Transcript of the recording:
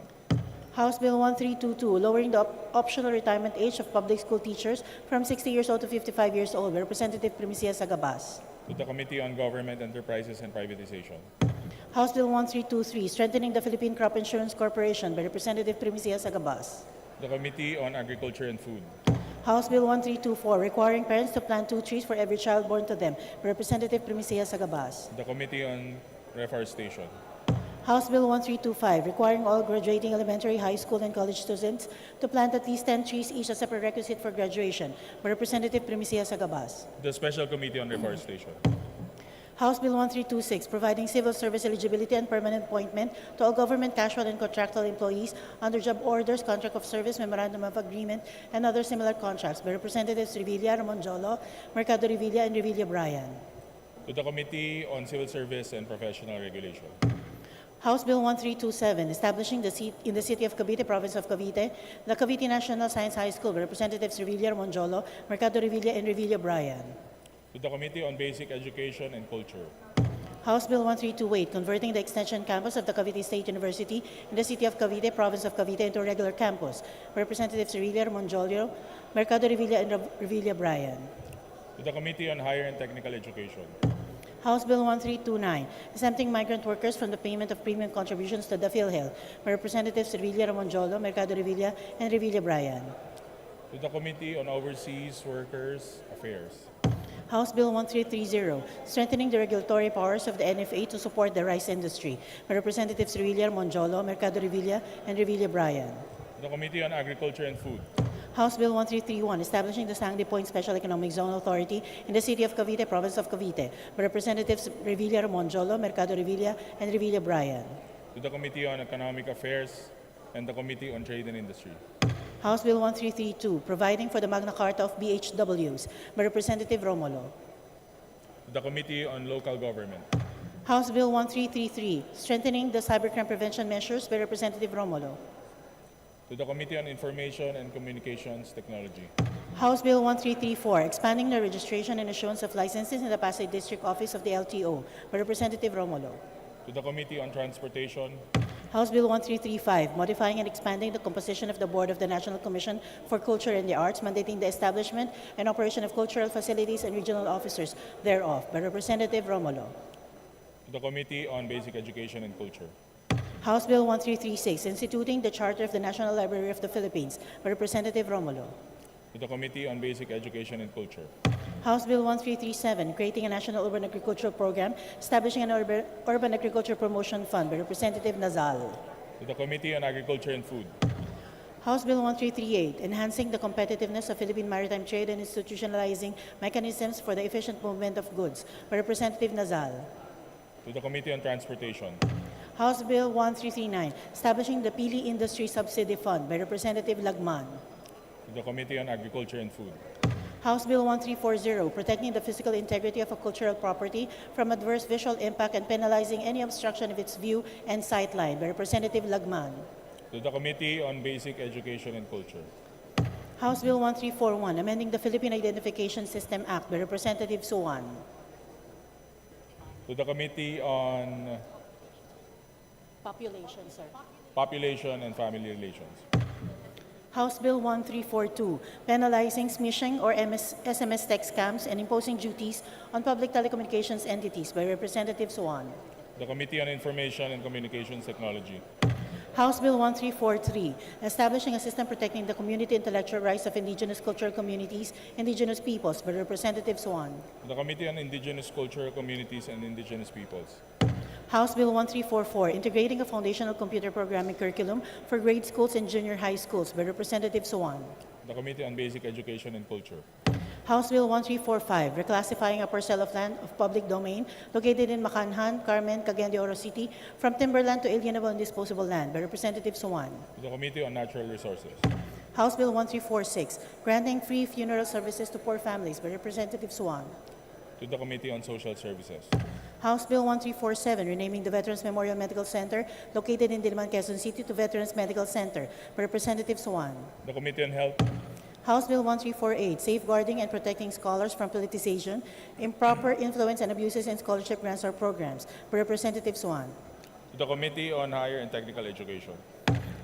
House Bill 1322, lowering the op- optional retirement age of public school teachers from 60 years old to 55 years old, by Representative Primicia Sagabas. to the Committee on Government Enterprises and Privatization, House Bill 1323, strengthening the Philippine Crop Insurance Corporation, by Representative Primicia Sagabas. to the Committee on Agriculture and Food, House Bill 1324, requiring parents to plant two trees for every child born to them, by Representative Primicia Sagabas. to the Committee on Reforestation, House Bill 1325, requiring all graduating elementary, high school, and college students to plant at least 10 trees each as a prerequisite for graduation, by Representative Primicia Sagabas. to the Special Committee on Reforestation, House Bill 1326, providing civil service eligibility and permanent appointment to all government casual and contractual employees under job orders, contract of service, memorandum of agreement, and other similar contracts, by Representatives Revilla, Ramonjolo, Mercado Revilla, and Revilla Bryan. to the Committee on Civil Service and Professional Regulation, House Bill 1327, establishing the seat in the city of Cavite, province of Cavite, the Cavite National Science High School, by Representatives Revilla Monjolo, Mercado Revilla, and Revilla Bryan. to the Committee on Basic Education and Culture, House Bill 1328, converting the extension campus of the Cavite State University in the city of Cavite, province of Cavite, into a regular campus, by Representatives Revilla Monjolo, Mercado Revilla, and Rev- Revilla Bryan. to the Committee on Higher and Technical Education, House Bill 1329, exempting migrant workers from the payment of premium contributions to the PhilHealth, by Representatives Revilla Monjolo, Mercado Revilla, and Revilla Bryan. to the Committee on Overseas Workers Affairs, House Bill 1330, strengthening the regulatory powers of the NFA to support the rice industry, by Representatives Revilla Monjolo, Mercado Revilla, and Revilla Bryan. to the Committee on Agriculture and Food, House Bill 1331, establishing the Sandy Point Special Economic Zone Authority in the city of Cavite, province of Cavite, by Representatives Revilla Monjolo, Mercado Revilla, and Revilla Bryan. to the Committee on Economic Affairs, and the Committee on Trade and Industry, House Bill 1332, providing for the Magna Carta of BHWs, by Representative Romulo. to the Committee on Local Government, House Bill 1333, strengthening the cybercrime prevention measures, by Representative Romulo. to the Committee on Information and Communications Technology, House Bill 1334, expanding the registration and issuance of licenses in the Pasay District Office of the LTO by Representative Romulo. to the Committee on Transportation, House Bill 1335, modifying and expanding the composition of the Board of the National Commission for Culture and the Arts, mandating the establishment and operation of cultural facilities and regional officers thereof by Representative Romulo. to the Committee on Basic Education and Culture, House Bill 1336, instituting the Charter of the National Library of the Philippines by Representative Romulo. to the Committee on Basic Education and Culture, House Bill 1337, creating a national urban agricultural program, establishing an urban, urban agriculture promotion fund by Representative Nazal. to the Committee on Agriculture and Food, House Bill 1338, enhancing the competitiveness of Philippine maritime trade and institutionalizing mechanisms for the efficient movement of goods by Representative Nazal. to the Committee on Transportation, House Bill 1339, establishing the Pili Industry Subsidy Fund by Representative Lagman. to the Committee on Agriculture and Food, House Bill 1340, protecting the physical integrity of a cultural property from adverse visual impact and penalizing any obstruction of its view and sightline by Representative Lagman. to the Committee on Basic Education and Culture, House Bill 1341, amending the Philippine Identification System Act by Representative Suwan. to the Committee on Population, sir. Population and Family Relations, House Bill 1342, penalizing smishing or MS SMS text scams and imposing duties on public telecommunications entities by Representative Suwan. to the Committee on Information and Communications Technology, House Bill 1343, establishing a system protecting the community intellectual rights of indigenous cultural communities, indigenous peoples by Representative Swan. to the Committee on Indigenous Culture, Communities, and Indigenous Peoples, House Bill 1344, integrating a foundational computer programming curriculum for grade schools and junior high schools by Representative Swan. to the Committee on Basic Education and Culture, House Bill 1345, reclassifying a parcel of land of public domain located in Macanhan, Carmen, Cagayan de Oro City from timberland to alienable and disposable land by Representative Swan. to the Committee on Natural Resources, House Bill 1346, granting free funeral services to poor families by Representative Swan. to the Committee on Social Services, House Bill 1347, renaming the Veterans Memorial Medical Center located in Diliman, Quezon City to Veterans Medical Center by Representative Swan. to the Committee on Health, House Bill 1348, safeguarding and protecting scholars from politicization, improper influence and abuses in scholarship grants or programs by Representative Swan. to the Committee on Higher and Technical Education,